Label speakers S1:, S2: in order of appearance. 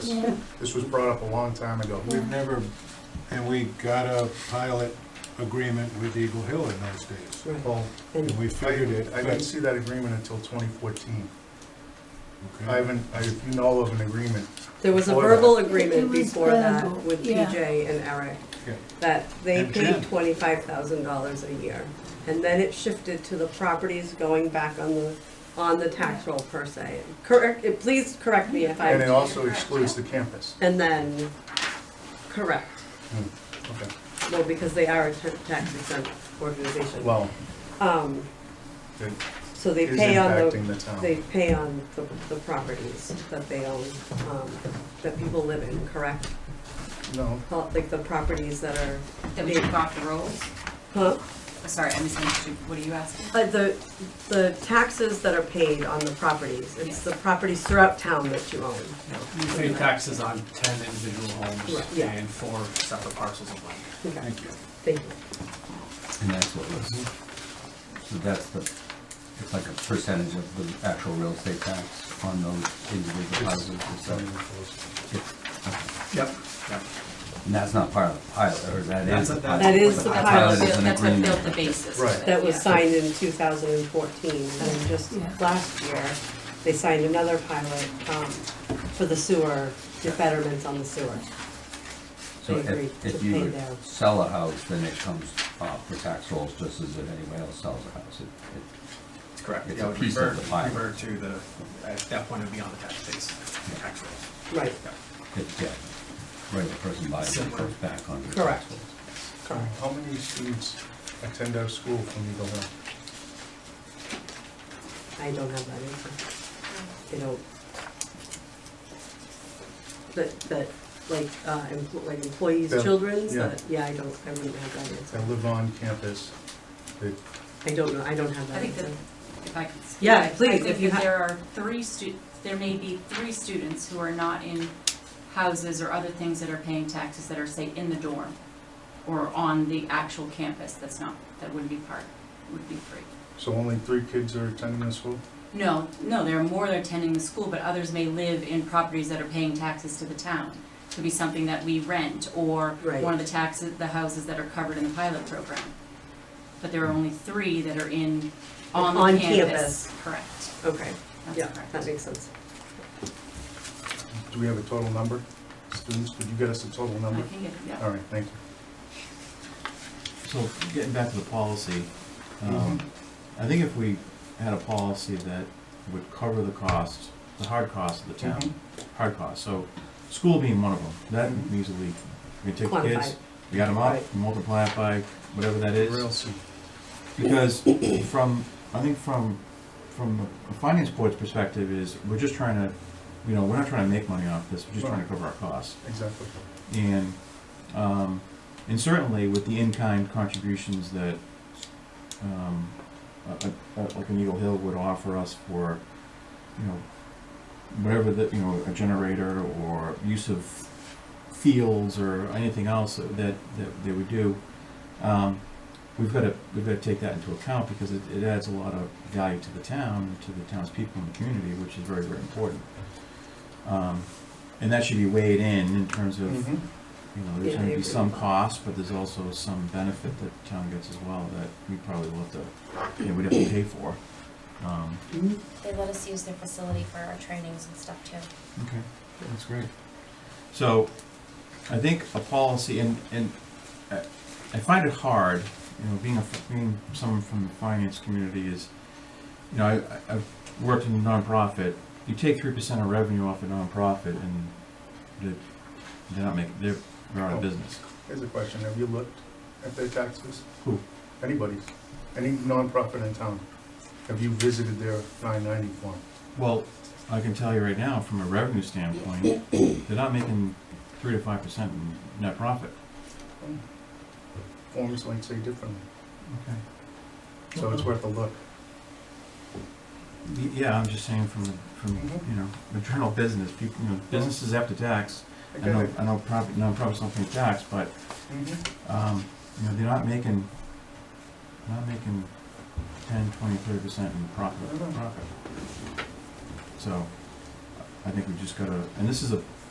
S1: This this was brought up a long time ago.
S2: We've never, and we got a pilot agreement with Eagle Hill in those days,
S1: Well,
S2: and we
S1: I
S2: figured it,
S1: I didn't
S2: but,
S1: see that agreement until 2014. I
S2: okay,
S1: haven't, I- if you know of an agreement,
S3: There was a
S1: Before that.
S3: verbal
S4: It
S3: agreement
S4: was
S3: before that
S4: verbal,
S3: with
S4: yeah.
S3: PJ and Eric,
S2: yeah,
S3: that they
S2: And Jen.
S3: paid twenty-five thousand dollars a year. And then it shifted to the properties going back on the, on the tax roll per se. Correct, eh, please correct me if
S1: and it
S3: I,
S1: also excludes the campus.
S3: and then, correct,
S1: Okay,
S3: well, because they are a ta- tax exempt organization.
S1: well,
S3: Um,
S1: it
S3: so they
S1: is
S3: pay on the.
S1: impacting the
S3: They
S1: town.
S3: pay on the, the properties that they own, um, that people live in, correct?
S1: No,
S3: Like the properties that are,
S5: That we took off the rolls?
S3: huh?
S5: Sorry, I misunderstood. What are you asking?
S3: Uh, the, the taxes that are paid on the properties, it's the properties throughout town that you own.
S6: You pay taxes on ten individual
S3: Right,
S6: homes
S3: yeah.
S6: and four separate parcels of land.
S3: Okay,
S2: thank you.
S3: thank you.
S7: And that's what was, so that's the, it's like a percentage of the actual real estate tax on those individual houses and stuff.
S6: Yep. Yep.
S7: And that's not part of the pilot, or that
S6: That's
S7: is?
S6: a-
S7: the
S6: that's-
S3: That is the
S7: The
S3: pilot.
S7: pilot is an
S5: That's what built the
S7: agreement.
S5: basis for
S1: Right.
S5: it.
S3: That was
S5: yeah.
S3: signed in two thousand and fourteen, and just
S4: Yeah.
S3: last year, they signed another pilot, um, for the sewer, the betterments on the sewer.
S7: So
S3: They agreed
S7: if,
S3: to
S7: if
S3: pay
S7: you
S3: down.
S7: sell a house, then it comes off the tax rolls just as if anyone else sells a house. It- it-
S6: That's correct.
S7: It's
S6: Yeah,
S7: a
S6: it would
S7: piece of
S6: revert,
S7: the pie.
S6: revert to the, at that point, it would be on the tax base, the tax rolls.
S3: Right,
S7: It's, yeah, regular person buys it, it goes back on the tax
S3: Correct.
S7: rolls.
S1: how many students attend our school from Eagle Hill?
S3: I don't have that answer. They don't. That, that, like, uh, empl- like employees'
S1: Yeah,
S3: children's,
S1: yeah.
S3: that, yeah, I don't, I wouldn't have that answer.
S1: That live on campus, that,
S3: I don't know, I don't have
S5: I
S3: that
S5: think that,
S3: answer.
S5: if I could. speak,
S3: Yeah,
S5: I-
S3: please,
S5: I
S3: if
S5: think
S3: you
S5: that
S3: ha-
S5: there are three stu, there may be three students who are not in houses or other things that are paying taxes that are, say, in the dorm or on the actual campus. That's not, that wouldn't be part, would be free.
S1: so only three kids are attending the school?
S5: No, no, there are more that are attending the school, but others may live in properties that are paying taxes to the town. Could be something that we rent, or
S3: Right.
S5: one of the taxes, the houses that are covered in the pilot program. But there are only three that are in, on
S3: On
S5: the
S3: campus.
S5: campus, correct,
S3: Okay,
S5: that's
S3: yeah,
S5: correct.
S3: that makes sense.
S1: Do we have a total number? Students, could you get us a total
S5: I
S1: number?
S5: can get, yeah.
S1: All right, thank you.
S8: So getting back to the policy, um, I think if we had a policy that would cover the cost, the hard cost of the
S1: Mhm.
S8: town,
S3: Mm-hmm.
S8: hard cost, so school being one of them, that easily, we take the
S3: Quantify.
S8: kids, we add them
S3: Right.
S8: up, multiply it by whatever that is.
S1: Real soon.
S8: Because from, I think from, from a finance board's perspective is, we're just trying to, you know, we're not trying to make money off this, we're just trying to cover our costs.
S1: Exactly.
S8: And, um, and certainly with the in-kind contributions that, um, a, a, a- like an Eagle Hill would offer us for, you know, whatever the, you know, a generator or use of fields or anything else that, that they would do, um, we've gotta, we've gotta take that into account because it, it adds a lot of value to the town, to the town's people and the community, which is very, very important. Um, and that should be weighed in, in terms of,
S1: Mhm.
S8: you know,
S3: Yeah,
S8: there's
S3: I
S8: gonna
S3: agree
S8: be some
S3: with that.
S8: cost, but there's also some benefit that town gets as well that we probably will have to, you know, we'd have to pay for. Um,
S9: They let us use their facility for our trainings and stuff too.
S8: okay, that's great. So, I think a policy, and, and I I find it hard, you know, being a, being someone from the finance community is, you know, I- I, I've worked in nonprofit, you take three percent of revenue off a nonprofit and they're, they're not making, they're, they're
S3: Oh.
S8: out of business.
S1: Here's a question, have you looked at their taxes?
S8: Who?
S1: Anybody's, any nonprofit in town? Have you visited their nine ninety form?
S8: Well, I can tell you right now, from a revenue standpoint, they're not making three to five percent in net profit. Hmm.
S1: Forms might say differently,
S8: Okay.
S1: so
S8: Mm-hmm.
S1: it's worth a look.
S8: Yeah, I'm just saying from, the from,
S1: Mhm.
S8: you know, the general business, people, you know, businesses have to tax. I
S1: Okay.
S8: know, I know profit, nonprofits don't pay tax, but,
S1: Mhm.
S8: um, you know, they're not making, they're not making ten, twenty, thirty percent in profit,
S1: Mhm.
S8: profit. So, I think we just gotta, and this is a,